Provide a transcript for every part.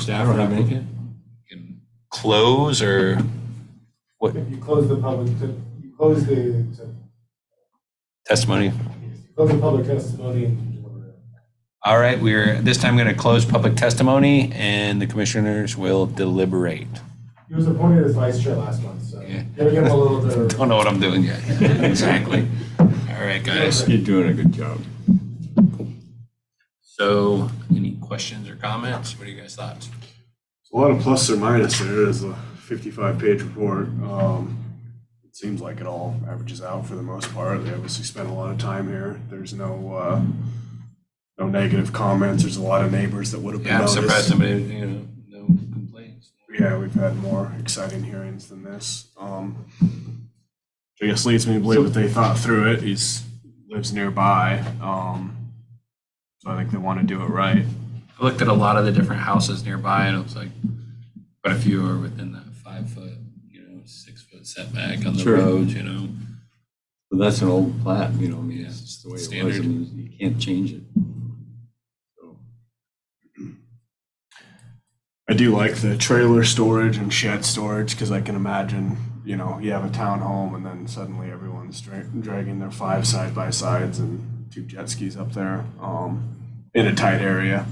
staff I don't have or any. can close or what If you close the public, to- you close the, to- testimony? you close the public testimony and. All right, we're this time going to close public testimony and the commissioners will deliberate. He was appointed as vice chair last month, so Yeah. gotta give him a little bit of. Don't know what I'm doing yet. Exactly. All right, guys. You're doing a good job. So any questions or comments? What are you guys' thoughts? A lot of plus or minus there. It is a 55-page report. Um, It seems like it all averages out for the most part. They obviously spent a lot of time here. There's no, uh, no negative comments. There's a lot of neighbors that would have been Yeah, I'm surprised noticed. somebody, you know, no complaints. Yeah, we've had more exciting hearings than this. Um, I guess leads me to believe that they thought through it. He's, lives nearby. Um, So I think they want to do it right. I looked at a lot of the different houses nearby and it was like, quite a few are within that five foot, you know, six foot setback on the Sure. roads, you know? But that's an old plat, you know, I mean, Yeah. it's just the way it was. Standard. I mean, you can't change it. So, I do like the trailer storage and shed storage because I can imagine, you know, you have a townhome and then suddenly everyone's dra- dragging their five side by sides and two jet skis up there um, in a tight area.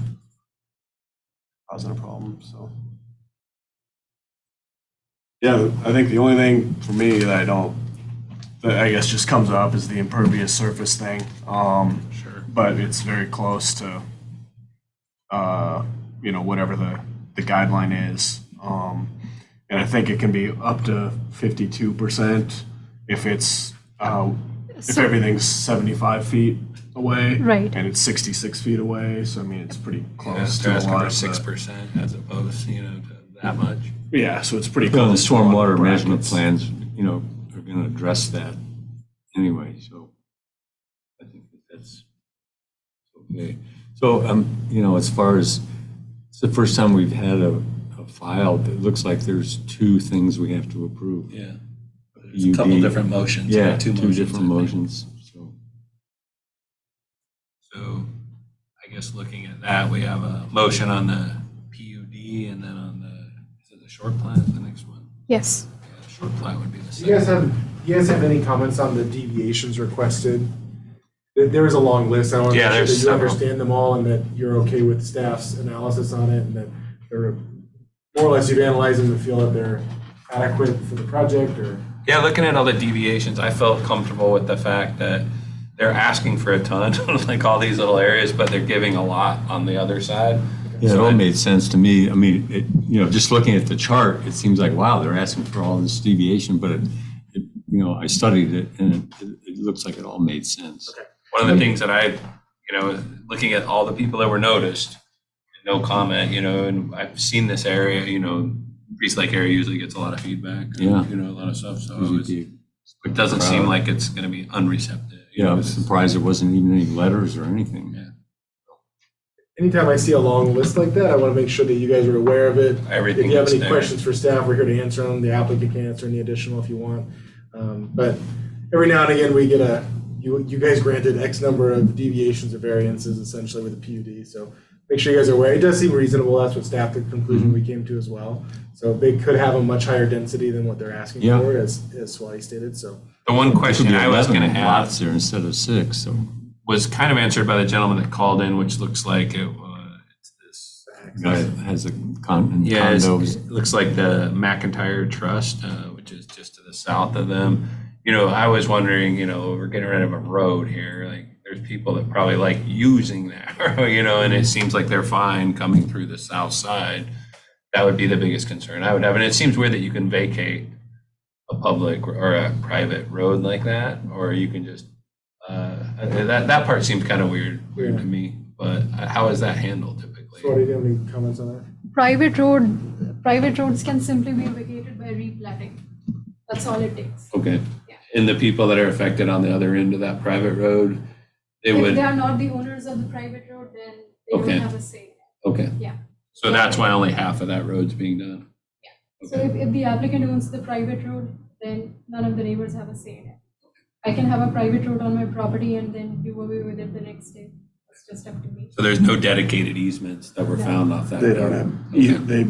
Causing a problem. So, yeah, I think the only thing for me that I don't, that I guess just comes up is the impervious surface thing. Um, Sure. but it's very close to, uh, you know, whatever the, the guideline is. Um, and I think it can be up to fifty-two percent if it's, uh, if So- everything's seventy-five feet away. Right. And it's sixty-six feet away, so I mean, it's pretty Yeah, close They're to a asking lot for of six the. percent as opposed, you know, to that much. Yeah, so it's pretty You know, the close. to a lot of stormwater brackets. management plans, you know, are going to address that anyway, so I think that that's okay. So, um, you know, as far as, it's the first time we've had a, a file that looks like there's two things we have to approve. Yeah. There's a couple UD. different motions. Yeah, like two motions, different I think. motions, so. So I guess looking at that, we have a motion on the PUD and then on the, is it the short plan, is the next one? Yes. Yeah, Short plan would be the Do you guys second. have, you guys have any comments on the deviations requested? There- There is a long list. I want Yeah, to make sure there's that you several. understand them all and that you're okay with staff's analysis on it and that they're, more or less you've analyzed them to feel that they're adequate for the project or? Yeah, looking at all the deviations, I felt comfortable with the fact that they're asking for a ton, like all these little areas, but they're giving a lot on the other side. Yeah, it So all I- made sense to me. I mean, it, you know, just looking at the chart, it seems like, wow, they're asking for all this deviation, but it, it, you know, I studied it and it, it- it looks like it all made sense. One of the things that I, you know, looking at all the people that were noticed, no comment, you know, and I've seen this area, you know, East Lake area usually gets a lot of feedback. Yeah. You know, a lot of stuff, so it Usually was- be- it doesn't seem Proud. like it's going to be unreceptive. you Yeah, I know, was it's- surprised there wasn't even any letters or anything. Yeah. Anytime I see a long list like that, I want to make sure that you guys are aware of it. Everything If you have that's any there. questions for staff, we're here to answer them. The applicant can answer any additional if you want. Um, But every now and again, we get a, you, you guys granted X number of deviations or variances essentially with the PUD. So make sure you guys are aware. It does seem reasonable. That's what staff, the conclusion we came to as well. So they could have a much higher density than what they're asking Yeah. for, as, as Swati stated, so. The one There could question be I was going to 11 ask Lots there instead of six, so. was kind of answered by the gentleman that called in, which looks like it was, it's this. Guy has a con, Yeah, it's- condos. it looks like the McIntyre Trust, uh, which is just to the south of them. You know, I was wondering, you know, we're getting rid of a road here, like, there's people that probably like using that, you know, and it seems like they're fine coming through the south side. That would be the biggest concern I would have, and it seems weird that you can vacate a public or a private road like that, or you can just, uh, that, that part seems kind of weird, weird to me, but uh, how is that handled typically? Swati, do you have any comments on that? Private road, private roads can simply be vacated by replatting. That's all it takes. Okay. Yeah. And the people that are affected on the other end of that private road, they If would, they are not the owners of the private road, then they Okay. don't have a say. okay. Yeah. So that's why only half of that road's being done? So if, if the applicant owns the private road, then none of the neighbors have a say in it. I can have a private road on my property and then do away with it the next day. It's just up to me. So there's no dedicated easements that were found off that They road? don't have, Okay. they